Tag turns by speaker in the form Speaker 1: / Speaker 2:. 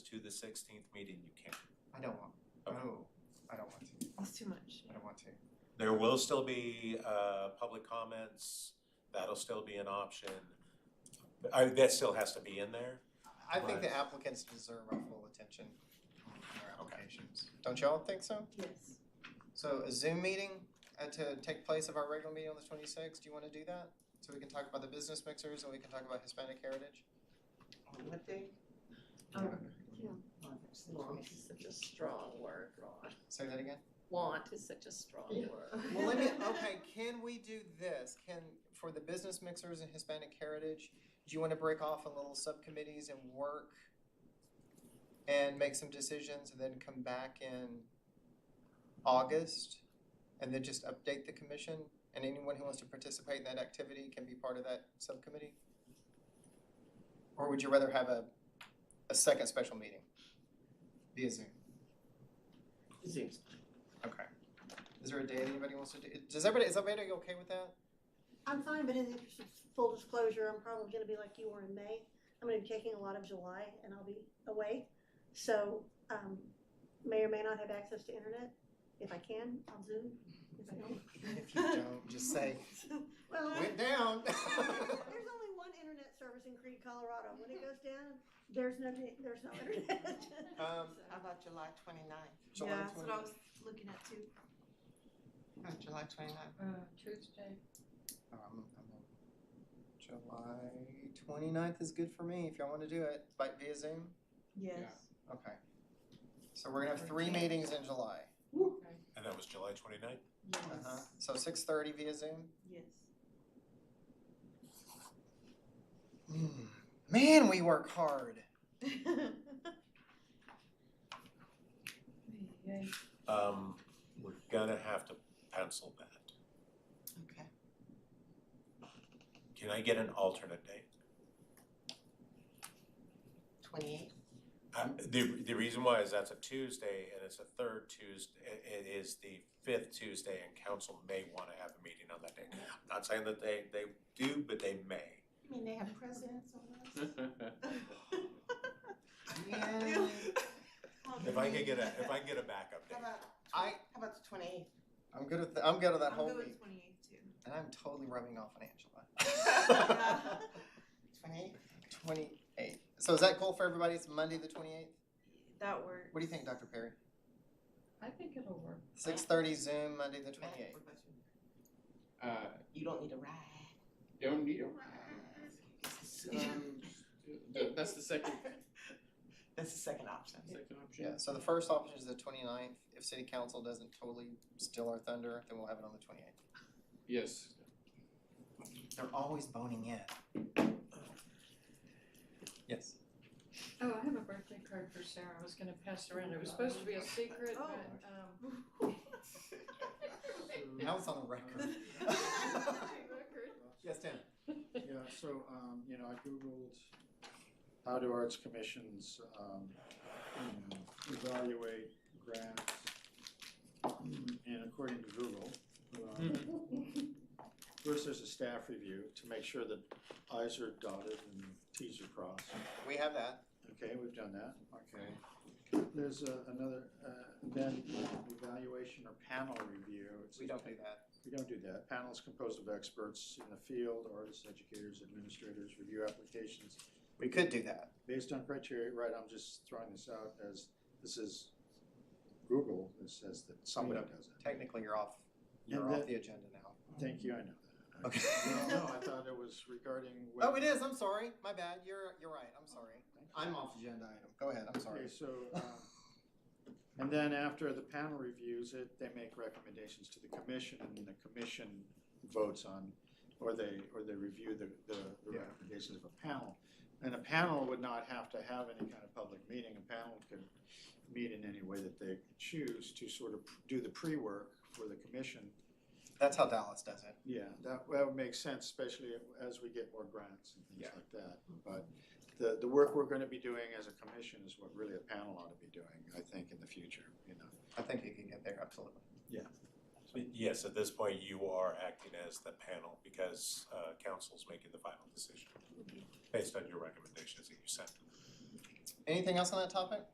Speaker 1: to the sixteenth meeting, you can.
Speaker 2: I don't want,
Speaker 1: Okay.
Speaker 2: no, I don't want to,
Speaker 3: It's too much.
Speaker 2: I don't want to.
Speaker 1: There will still be uh public comments, that'll still be an option. I that still has to be in there.
Speaker 2: I think the applicants deserve our full attention in their applications. Don't y'all think so?
Speaker 3: Yes.
Speaker 2: So a Zoom meeting uh to take place of our regular meeting on the twenty-sixth, do you wanna do that? So we can talk about the business mixers and we can talk about Hispanic heritage?
Speaker 4: On what day?
Speaker 3: Um,
Speaker 4: On this.
Speaker 3: want is such a strong word, Ron.
Speaker 2: Say that again?
Speaker 3: Want is such a strong word.
Speaker 2: Well, let me, okay, can we do this? Can, for the business mixers and Hispanic heritage, do you wanna break off in little subcommittees and work? And make some decisions and then come back in August? And then just update the commission? And anyone who wants to participate in that activity can be part of that subcommittee? Or would you rather have a, a second special meeting via Zoom?
Speaker 4: Zeus.
Speaker 2: Okay. Is there a day that anybody wants to do? Does everybody, is everybody okay with that?
Speaker 5: I'm fine, but in the interest of full disclosure, I'm probably gonna be like you were in May. I'm gonna be taking a lot of July and I'll be away. So, um, may or may not have access to internet. If I can, I'll Zoom. If I
Speaker 2: If you don't, just say,
Speaker 5: don't. Well,
Speaker 2: went down.
Speaker 5: there's only one internet service in Creed, Colorado. When it goes down, there's no, there's no internet.
Speaker 2: Um,
Speaker 4: How about July twenty-ninth?
Speaker 2: July
Speaker 3: Yeah, that's what
Speaker 2: 20
Speaker 3: I was looking at too.
Speaker 4: Uh, July twenty-ninth.
Speaker 6: Uh,
Speaker 3: Tuesday.
Speaker 2: Um, I'm on- July 29th is good for me if y'all want to do it, like via Zoom.
Speaker 3: Yes.
Speaker 2: Okay. So we're gonna have three meetings in July.
Speaker 1: And that was July 29th.
Speaker 2: Uh-huh. So 6:30 via Zoom.
Speaker 3: Yes.
Speaker 2: Mm. Man, we work hard.
Speaker 1: Um, we're gonna have to pencil that.
Speaker 4: Okay.
Speaker 1: Can I get an alternate date?
Speaker 4: Twenty-eighth.
Speaker 1: Um, the, the reason why is that's a Tuesday and it's a third Tuesday, it is the fifth Tuesday and council may wanna have a meeting on that day. I'm Not saying that they, they do, but they may.
Speaker 4: You mean they have presidents on this?
Speaker 2: Yeah.
Speaker 1: If I could get a, if I could get a backup
Speaker 4: How
Speaker 1: date.
Speaker 4: about,
Speaker 2: I,
Speaker 4: how about the twenty-eighth?
Speaker 2: I'm good with, th- I'm good with that
Speaker 3: I'm
Speaker 2: whole
Speaker 3: good
Speaker 2: week.
Speaker 3: with twenty eighth too.
Speaker 2: And I'm totally rubbing off on Angela.
Speaker 3: Yeah.
Speaker 4: Twenty-eighth?
Speaker 2: 28th. So is that cool for everybody? It's Monday the 28th?
Speaker 3: That works.
Speaker 2: What do you think, Dr. Perry?
Speaker 6: I think it'll work.
Speaker 2: 6:30 Zoom, Monday the 28th.
Speaker 7: Uh,
Speaker 4: You don't need a ride.
Speaker 7: don't need a ride. Um, th- that's the second,
Speaker 4: That's the second option.
Speaker 7: second option.
Speaker 2: Yeah, so the first option is the 29th. If city council doesn't totally steal our thunder, then we'll have it on the 28th.
Speaker 7: Yes.
Speaker 2: They're always boning in. Yes.
Speaker 6: Oh, I have a birthday card for Sarah. I was gonna pass around. It was supposed to be a secret, but um.
Speaker 3: Oh.
Speaker 2: Now it's on the record. Yes, Tim.
Speaker 8: Yeah, so, um, you know, I Googled how do arts commissions, um, you know, evaluate grants? Mm, And according to Google,
Speaker 2: Hmm. Mm-hmm.
Speaker 8: um, first there's a staff review to make sure that i's are dotted and t's are crossed.
Speaker 2: We have that.
Speaker 8: Okay, we've done that, okay. There's a- another, uh, then evaluation or panel review. It's-
Speaker 2: We don't do that.
Speaker 8: we don't do that. Panel is composed of experts in the field, artists, educators, administrators, review applications
Speaker 2: We could do that.
Speaker 8: based on criteria, right, I'm just throwing this out as, this is Google, that says that somebody
Speaker 2: Hmm.
Speaker 8: does it.
Speaker 2: Technically, you're off, you're
Speaker 8: And
Speaker 2: off
Speaker 8: that-
Speaker 2: the agenda now.
Speaker 8: Thank you, I know that.
Speaker 2: Okay.
Speaker 8: No, no, I thought it was regarding.
Speaker 2: Oh, it is. I'm sorry. My bad. You're, you're right. I'm sorry. I'm off agenda item. Go ahead. I'm sorry.
Speaker 8: Okay, so, um, and then after the panel reviews it, they make recommendations to the commission, and then the commission votes on, or they, or they review the, the the
Speaker 2: Yeah.
Speaker 8: recommendations of a panel. And a panel would not have to have any kind of public meeting, a panel could meet in any way that they choose to sort of do the pre-work for the commission.
Speaker 2: That's how Dallas does it.
Speaker 8: Yeah, that, that would make sense, especially as we get more grants and things
Speaker 2: Yeah.
Speaker 8: like that. But the, the work we're gonna be doing as a commission is what really a panel ought to be doing, I think, in the future, you know.
Speaker 2: I think you can get there, absolutely.
Speaker 1: Yes, at this point, you are acting as the panel because uh council's making the final decision based on your recommendations that you sent.
Speaker 2: Anything else on that topic?